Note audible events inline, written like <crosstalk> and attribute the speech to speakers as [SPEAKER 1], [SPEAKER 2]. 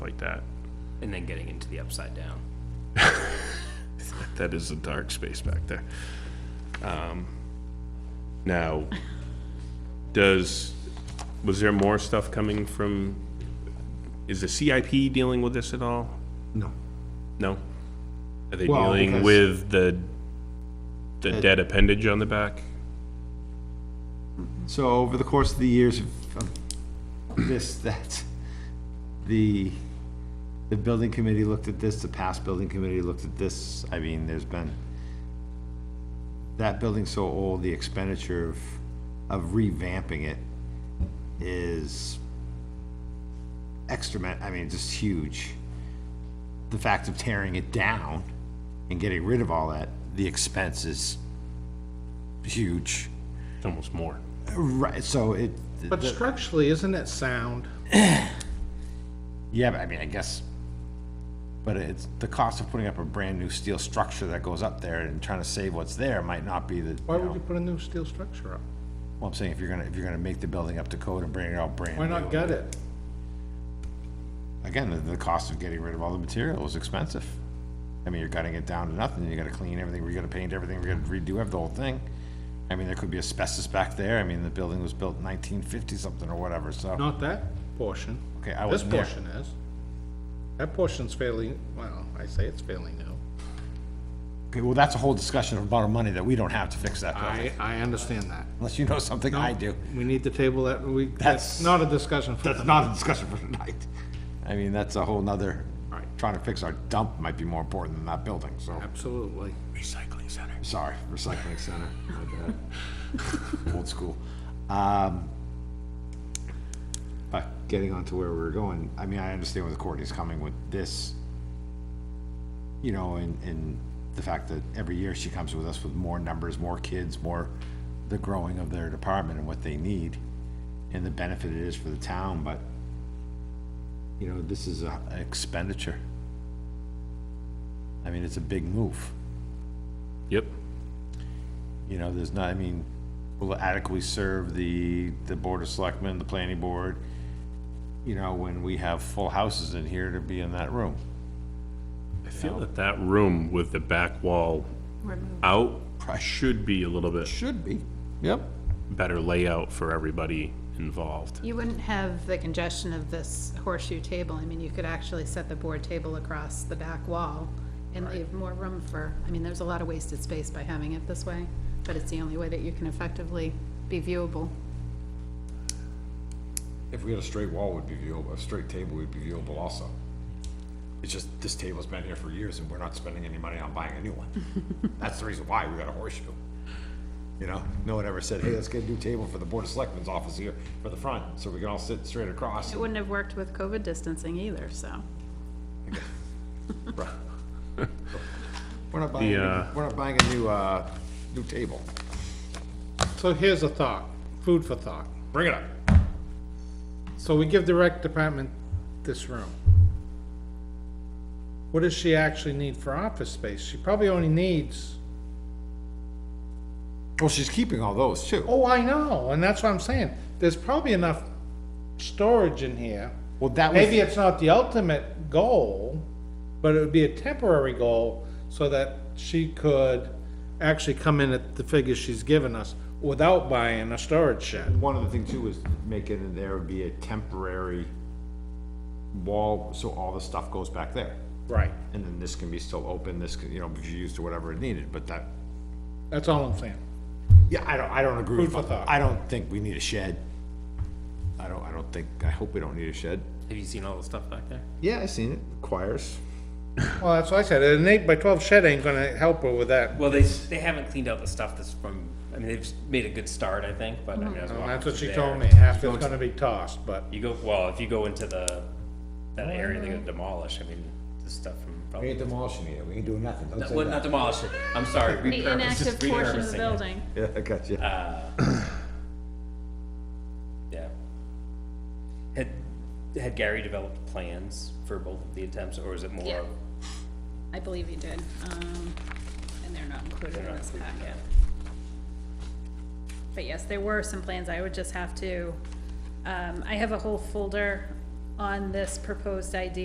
[SPEAKER 1] like that.
[SPEAKER 2] and then getting into the upside down.
[SPEAKER 1] That is a dark space back there. Um, Now, does, was there more stuff coming from, is the CIP dealing with this at all?
[SPEAKER 3] No.
[SPEAKER 1] No? Are they
[SPEAKER 3] Well,
[SPEAKER 1] dealing
[SPEAKER 3] because-
[SPEAKER 1] with the, the dead appendage on the back?
[SPEAKER 3] So over the course of the years of of this, that, the, the building committee looked at this, the past building committee looked at this, I mean, there's been, that building's so old, the expenditure of, of revamping it is extra, I mean, just huge. The fact of tearing it down and getting rid of all that, the expense is huge.
[SPEAKER 1] It's Almost more.
[SPEAKER 3] Right, so it,
[SPEAKER 4] But structurally, isn't it sound?
[SPEAKER 3] yeah, but I mean, I guess, but it's, the cost of putting up a brand-new steel structure that goes up there and trying to save what's there might not be the, you
[SPEAKER 4] Why would
[SPEAKER 3] know,
[SPEAKER 4] you put a new steel structure up?
[SPEAKER 3] well, I'm saying if you're gonna, if you're gonna make the building up to code and bring it out brand new.
[SPEAKER 4] Why not gut it?
[SPEAKER 3] Again, the, the cost of getting rid of all the material is expensive. I mean, you're gutting it down to nothing, you gotta clean everything, we gotta paint everything, we gotta redo ev- the whole thing. I mean, there could be asbestos back there, I mean, the building was built nineteen fifty-something or whatever, so.
[SPEAKER 4] Not that portion.
[SPEAKER 3] Okay, I
[SPEAKER 4] This
[SPEAKER 3] wasn't there.
[SPEAKER 4] portion is. That portion's fairly, well, I say it's fairly new.
[SPEAKER 3] Okay, well, that's a whole discussion about money that we don't have to fix that building.
[SPEAKER 4] I, I understand that.
[SPEAKER 3] Unless you know something I do.
[SPEAKER 4] We need to table that, we,
[SPEAKER 3] That's-
[SPEAKER 4] that's not a discussion for
[SPEAKER 3] That's
[SPEAKER 4] tonight.
[SPEAKER 3] not a discussion for tonight. I mean, that's a whole nother,
[SPEAKER 4] Right.
[SPEAKER 3] trying to fix our dump might be more important than that building, so,
[SPEAKER 4] Absolutely.
[SPEAKER 1] Recycling center.
[SPEAKER 3] sorry, recycling center.
[SPEAKER 1] <laughs>
[SPEAKER 3] my bad. Old school. Um, But getting on to where we we're going, I mean, I understand where the court is coming with this. You know, and, and the fact that every year she comes with us with more numbers, more kids, more the growing of their department and what they need and the benefit it is for the town, but you know, this is a an expenditure. I mean, it's a big move.
[SPEAKER 1] Yep.
[SPEAKER 3] You know, there's not, I mean, will it adequately serve the, the board of selectmen, the planning board? You know, when we have full houses in here to be in that room.
[SPEAKER 1] I feel that that room with the back wall out should be a little bit
[SPEAKER 3] Should be. Yep.
[SPEAKER 1] better layout for everybody involved.
[SPEAKER 5] You wouldn't have the congestion of this horseshoe table. I mean, you could actually set the board table across the back wall and leave more room for, I mean, there's a lot of wasted space by having it this way, but it's the only way that you can effectively be viewable.
[SPEAKER 3] If we had a straight wall, would be viewable, a straight table would be viewable also. It's just, this table's been here for years and we're not spending any money on buying a <laughs> new one. That's the reason why we got a horseshoe. You know, no one ever said, hey, let's get a new table for the board of selectmen's office here for the front, so we can all sit straight across.
[SPEAKER 5] It wouldn't have worked with COVID distancing either, so.
[SPEAKER 3] We're not buying, a new-
[SPEAKER 1] uh,
[SPEAKER 3] we're not buying a new, uh, new table.
[SPEAKER 4] So here's a thought, food for thought.
[SPEAKER 3] Bring it up.
[SPEAKER 4] So we give the rec department this room. What does she actually need for office space? She probably only needs,
[SPEAKER 3] Well, she's keeping all those too.
[SPEAKER 4] oh, I know, and that's what I'm saying. There's probably enough storage in here.
[SPEAKER 3] Well, that
[SPEAKER 4] Maybe
[SPEAKER 3] was,
[SPEAKER 4] it's not the ultimate goal, but it would be a temporary goal so that she could actually come in at the figures she's given us without buying a storage shed.
[SPEAKER 3] one of the things too was making it there would be a temporary wall, so all the stuff goes back there.
[SPEAKER 4] Right.
[SPEAKER 3] And then this can be still open, this can, you know, be used to whatever it needed, but that,
[SPEAKER 4] That's all I'm saying.
[SPEAKER 3] yeah, I don't, I don't agree
[SPEAKER 4] Food for
[SPEAKER 3] with,
[SPEAKER 4] thought.
[SPEAKER 3] I don't think we need a shed. I don't, I don't think, I hope we don't need a shed.
[SPEAKER 2] Have you seen all the stuff back there?
[SPEAKER 3] Yeah, I seen it, choirs.
[SPEAKER 4] Well, that's what I said. An eight by twelve shed ain't gonna help her with that.
[SPEAKER 2] Well, they they haven't cleaned out the stuff that's from. I mean, they've made a good start, I think, but I
[SPEAKER 5] Mm-hmm.
[SPEAKER 2] mean, I was
[SPEAKER 4] And
[SPEAKER 2] walking
[SPEAKER 4] that's what
[SPEAKER 2] through
[SPEAKER 4] she
[SPEAKER 2] Oh, there.
[SPEAKER 4] told me. Half is gonna be tossed, but
[SPEAKER 2] You go well if you go into the that
[SPEAKER 5] Mm-hmm.
[SPEAKER 2] area, they're gonna demolish. I mean, the stuff from probably.
[SPEAKER 3] demolishing it, we ain't doing nothing, don't
[SPEAKER 2] Well,
[SPEAKER 3] <laughs>
[SPEAKER 2] not demolish it. I'm sorry.
[SPEAKER 5] The
[SPEAKER 2] repurpose,
[SPEAKER 5] inactive
[SPEAKER 2] just
[SPEAKER 5] portion of
[SPEAKER 2] repurposing
[SPEAKER 5] the
[SPEAKER 2] it.
[SPEAKER 5] building.
[SPEAKER 3] Yeah, I got you.
[SPEAKER 2] Yeah. Had had Gary developed plans for both of the attempts, or was it more?
[SPEAKER 5] Yeah.
[SPEAKER 2] of-
[SPEAKER 5] I believe you did, um, and they're not included
[SPEAKER 2] They're
[SPEAKER 5] in
[SPEAKER 2] not
[SPEAKER 5] this
[SPEAKER 2] included,
[SPEAKER 5] packet.
[SPEAKER 2] yeah.
[SPEAKER 5] But yes, there were some plans, I would just have to, um, I have a whole folder on this proposed idea